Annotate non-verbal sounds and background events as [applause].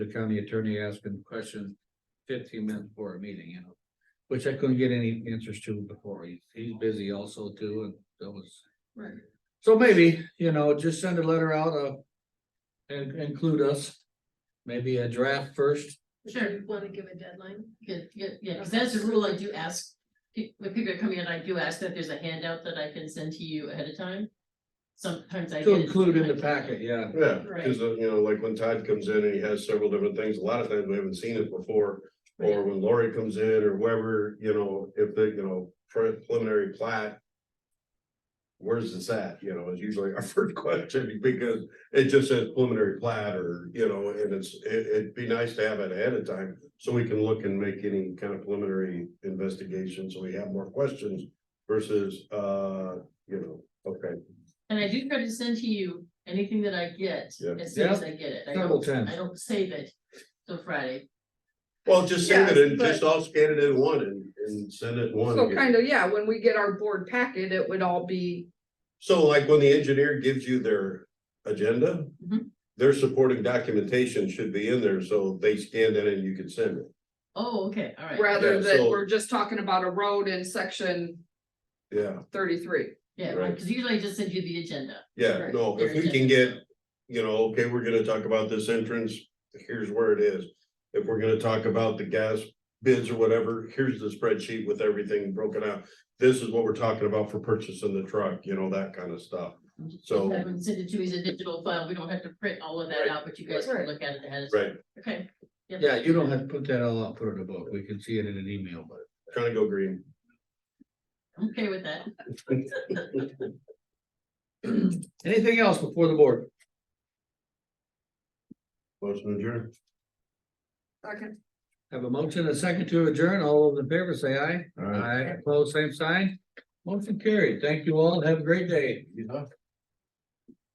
the county attorney asking questions fifteen minutes before a meeting, you know. Which I couldn't get any answers to before. He's, he's busy also too, and that was. Right. So maybe, you know, just send a letter out, uh, and include us. Maybe a draft first. Sure. Want to give a deadline? Yeah, yeah, yeah, because that's a rule I do ask, pe- when people are coming in, I do ask that there's a handout that I can send to you ahead of time. Sometimes I. To get it, include in the sometimes I don't. packet, yeah. Yeah, Right. because, you know, like when Todd comes in and he has several different things, a lot of times we haven't seen it before. Or when Lori comes in or whoever, you know, if they, you know, pre- preliminary plat. Where's this at, you know, is usually our [laughs] first question because it just says preliminary plat or, you know, and it's, it, it'd be nice to have it ahead of time. So we can look and make any kind of preliminary investigation, so we have more questions versus, uh, you know, okay. And I do try to send to you anything that I get, Yeah. as soon as I get it. I Double don't- ten. I don't save it till Friday. Well, just send it Yes, and but- just all scan it in one and, and send it one. So again. kind of, yeah, when we get our board packet, it would all be, So like when the engineer gives you their agenda, Mm-hmm. Mhm. their supporting documentation should be in there, so they scan that and you can send it. Oh, okay, all right, rather Yeah, that so- we're just talking about a road in section Yeah, thirty-three. yeah, right. because usually I just send you the agenda. yeah, Right. no, if we can get, you know, okay, we're gonna talk about this entrance, here's where it is. If we're gonna talk about the gas bids or whatever, here's the spreadsheet with everything broken out. This is what we're talking about for purchasing the truck, you know, that kind of stuff. So, I would send it to you as a digital file, we don't have to print all of that Right. out, but you guys can Right. look at it ahead of time. right, Okay. Yeah, you don't have to put that all out, put it in a book. We can see it in an email, but. [clears throat] kind of go green. [laughs] I'm okay with that. Anything else before the board? Motion adjourned. Okay. Have a motion, and a second to adjourn. All those in favor, say aye. Aye. Aye, opposed, same sign. Motion carried. Thank you all. Have a great day.